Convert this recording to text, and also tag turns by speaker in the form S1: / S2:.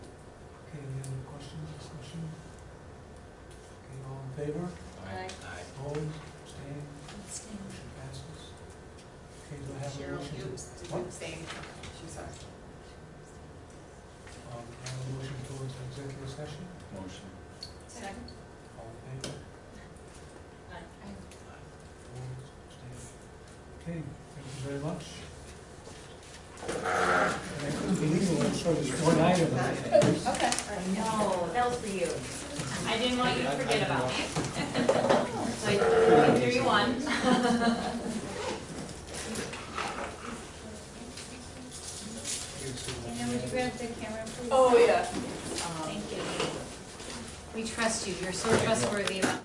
S1: favor?
S2: Aye.
S3: Aye.
S1: Opposed? Abstained? Motion passes. Okay, do I have a
S4: Cheryl,
S1: motion?
S4: you,
S1: to-
S4: did
S1: What?
S4: you abstain? She's sorry.
S1: Um, do I have a motion towards executive session?
S3: Motion.
S4: Second?
S1: All in favor?
S2: Aye.
S1: Opposed? Abstained? Okay, thank you very much. And I couldn't believe it, I'm sure there's one item.
S4: Okay.
S2: No, that was for you. I didn't want you to forget about me. So I threw you one.
S5: Dana, would you grab the camera, please?
S4: Oh, yeah.
S2: Thank you. We trust you, you're so trustworthy about